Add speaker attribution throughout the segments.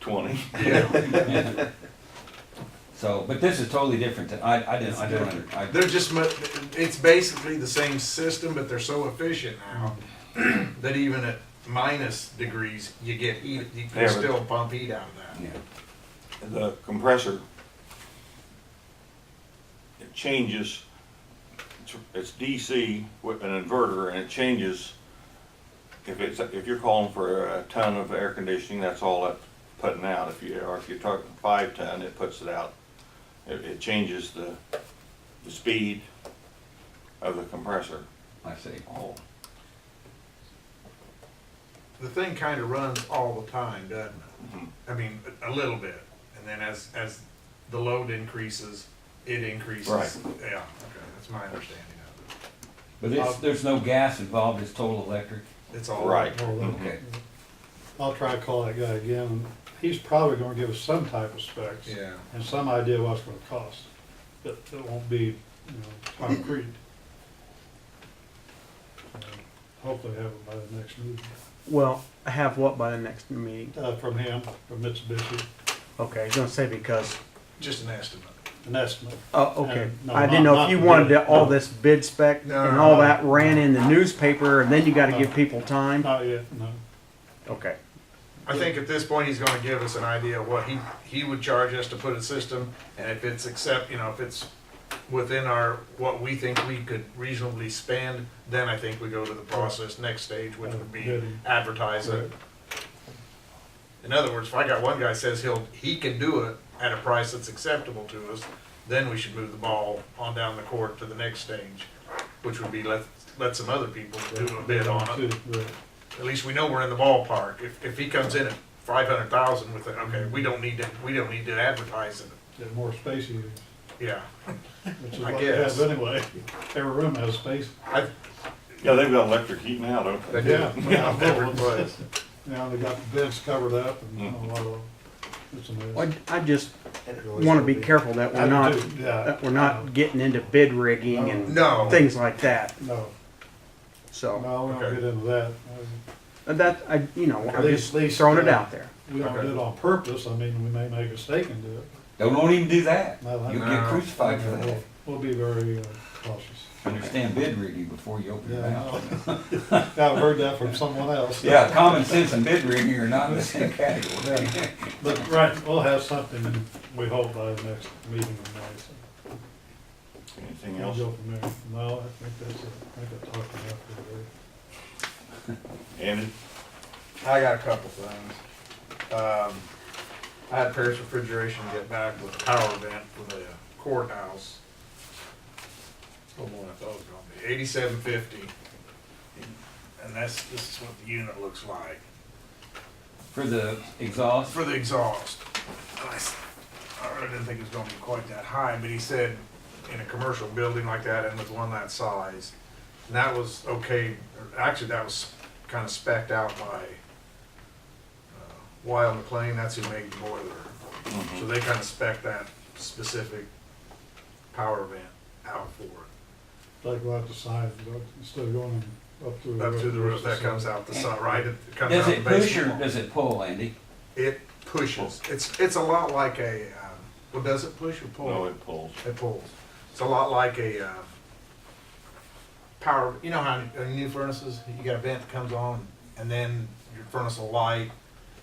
Speaker 1: twenty.
Speaker 2: So, but this is totally different. than- I, I didn't, I don't, under- I,
Speaker 3: They're just, mu- it's basically the same system, but they're so efficient now that even at minus degrees, you get heat, you
Speaker 1: Yeah,
Speaker 3: can
Speaker 1: but-
Speaker 3: still pump heat out of that.
Speaker 2: yeah,
Speaker 1: The compressor, it changes, it's- it's DC with an inverter and it changes. If it's, if you're calling for a ton of air conditioning, that's all it's putting out. If you, or if you're talking five ton, it puts it out. It, it changes the, the speed of the compressor.
Speaker 2: I see.
Speaker 1: Oh,
Speaker 3: The thing kind of runs all the time, doesn't it?
Speaker 1: mhm.
Speaker 3: I mean, a a little bit, and then as, as the load increases, it increases.
Speaker 1: Right.
Speaker 3: Yeah, okay, that's my understanding of
Speaker 2: But
Speaker 3: Um,
Speaker 2: it's, there's no gas involved, it's total electric?
Speaker 3: it. It's all.
Speaker 1: Right.
Speaker 4: Or we'll-
Speaker 2: Okay.
Speaker 4: I'll try to call that guy again. He's probably gonna give us some type of specs.
Speaker 3: Yeah.
Speaker 4: And some idea what it's gonna cost. It, it won't be, you know, concrete. And Hopefully have it by the next meeting.
Speaker 5: Well, I have what by the next meeting?
Speaker 4: Uh, from him, from Mitsubishi,
Speaker 5: Okay, I was gonna say because,
Speaker 3: Just an estimate.
Speaker 4: an estimate.
Speaker 5: oh, okay.
Speaker 4: And Uh, no,
Speaker 5: I didn't
Speaker 4: not-
Speaker 5: know if you
Speaker 4: not
Speaker 5: wanted
Speaker 4: bid.
Speaker 5: to- all this bid spec
Speaker 3: No,
Speaker 5: and
Speaker 3: no,
Speaker 5: all
Speaker 4: no.
Speaker 5: that ran in the newspaper and then you gotta
Speaker 4: No.
Speaker 5: give people time.
Speaker 4: Not yet, no.
Speaker 5: Okay,
Speaker 3: I think at this point, he's gonna give us an idea of what he, he would charge us to put a system, and if it's accept, you know, if it's within our, what we think we could reasonably spend, then I think we go to the process, next stage, which would be advertise it. In other words, if I got one guy says he'll, he can do it at a price that's acceptable to us, then we should move the ball on down the court to the next stage, which would be let, let some other people do a bid on it.
Speaker 4: Right.
Speaker 3: At least we know we're in the ballpark. If, if he comes in at five hundred thousand with it, okay, we don't need to, we don't need to advertise it.
Speaker 4: Get more space heaters,
Speaker 3: Yeah.
Speaker 4: which is
Speaker 3: I
Speaker 4: what they have
Speaker 3: guess.
Speaker 4: anyway. Every room has space.
Speaker 3: I,
Speaker 1: Mm-hmm. Yeah, they've got electric heat now, don't they?
Speaker 4: Yeah.
Speaker 3: yeah, never was.
Speaker 4: Now they got the beds covered up and you know,
Speaker 3: Mm.
Speaker 1: Mhm.
Speaker 4: a lot of, it's a mess.
Speaker 5: Well, I I just wanna be careful that
Speaker 4: I
Speaker 5: we're
Speaker 4: do
Speaker 5: not,
Speaker 4: too, yeah.
Speaker 5: that we're not getting into bid rigging and
Speaker 3: No.
Speaker 5: things like that,
Speaker 4: No,
Speaker 5: so.
Speaker 4: no, we
Speaker 3: Okay.
Speaker 4: don't get into that.
Speaker 5: And that, I, you know, I'm
Speaker 4: At
Speaker 5: just
Speaker 4: least- least,
Speaker 5: throwing it
Speaker 4: uh,
Speaker 5: out there.
Speaker 4: We don't do it on purpose, I mean, we may make a mistake and do it.
Speaker 2: Don't, don't even do that.
Speaker 4: No, I-
Speaker 2: You'll get
Speaker 3: No.
Speaker 2: crucified for that.
Speaker 4: We'll- We'll be very uh, cautious.
Speaker 2: Understand bid rigging before you open your
Speaker 4: Yeah,
Speaker 2: mouth.
Speaker 4: I know. I've heard that from someone else.
Speaker 2: Yeah, common sense and bid rigging are not in the same category.
Speaker 4: Yeah. But, right, we'll have something, we hope by the next meeting in May. so
Speaker 1: Anything
Speaker 4: we'll
Speaker 1: else?
Speaker 4: go from there. No, I think that's it, I think I talked enough for today.
Speaker 1: And
Speaker 3: I got a couple things. Um, I had Paris Refrigeration get back with a power event for the courthouse. A little more than I thought it was gonna be, eighty-seven fifty. And that's, this is what the unit looks like
Speaker 2: For the exhaust,
Speaker 3: for the exhaust. And I s- I really didn't think it was gonna be quite that high, but he said in a commercial building like that and with one that size, and that was okay, or actually, that was kind of specked out by uh, Wild McLean, that's who made the boiler.
Speaker 2: Mm-hmm.
Speaker 3: So they kind of spec that specific power vent out for it,
Speaker 4: Like we'll have to sign, but instead of going up through.
Speaker 3: up to the roof, that comes out the side, right? It comes
Speaker 2: does
Speaker 3: out
Speaker 2: it
Speaker 3: the
Speaker 2: push or
Speaker 3: basement.
Speaker 2: does it pull, Andy?
Speaker 3: It pushes, it's, it's a lot like a, uh, well, does it push or pull?
Speaker 1: No, it pulls.
Speaker 3: It pulls. It's a lot like a uh, power. You know how in new furnaces you got a vent that comes on, and then your furnace will light,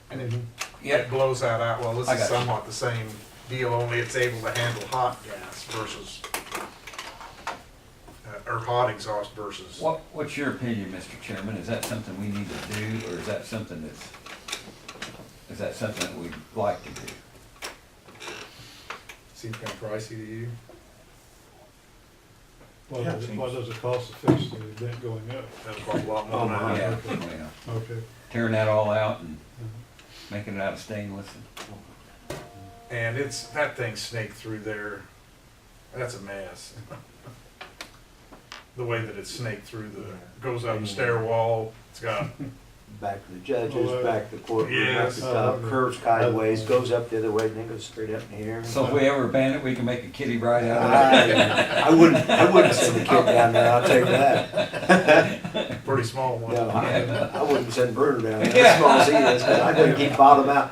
Speaker 3: and it, it
Speaker 2: Yep,
Speaker 3: blows that out. Well, this
Speaker 2: Mm-hmm. I
Speaker 3: is
Speaker 2: got you.
Speaker 3: somewhat the same deal, only it's able to handle hot gas versus uh, or hot exhaust versus.
Speaker 2: what, what's your opinion, Mr. Chairman? Is that something we need to do or is that something that's, is that something that we'd like to do?
Speaker 3: Seems kind of pricey to you.
Speaker 4: What
Speaker 1: Yeah,
Speaker 4: does,
Speaker 1: it
Speaker 4: what does it cost to fix the vent going up?
Speaker 3: That's probably a lot more.
Speaker 1: Oh,
Speaker 3: than
Speaker 1: my.
Speaker 3: I-
Speaker 2: Yeah, yeah.
Speaker 4: Okay.
Speaker 2: Tearing that all out and making it out of stainless.
Speaker 3: And it's that thing snaked through there. That's a mess. the way that it snaked through the goes up the stair wall. It's got
Speaker 6: Back to the judges, back to the courtroom, back
Speaker 3: Yes.
Speaker 6: to the top, curves sideways, goes up the other way, then goes straight up in the air.
Speaker 2: So if we ever ban it, we can make a kitty ride out of it.
Speaker 6: I I wouldn't, I wouldn't send a kid down there, I'll tell you that.
Speaker 3: a pretty small one.
Speaker 6: No, I I wouldn't send Bruno down there, as small as he is, but I'm gonna keep bottom out.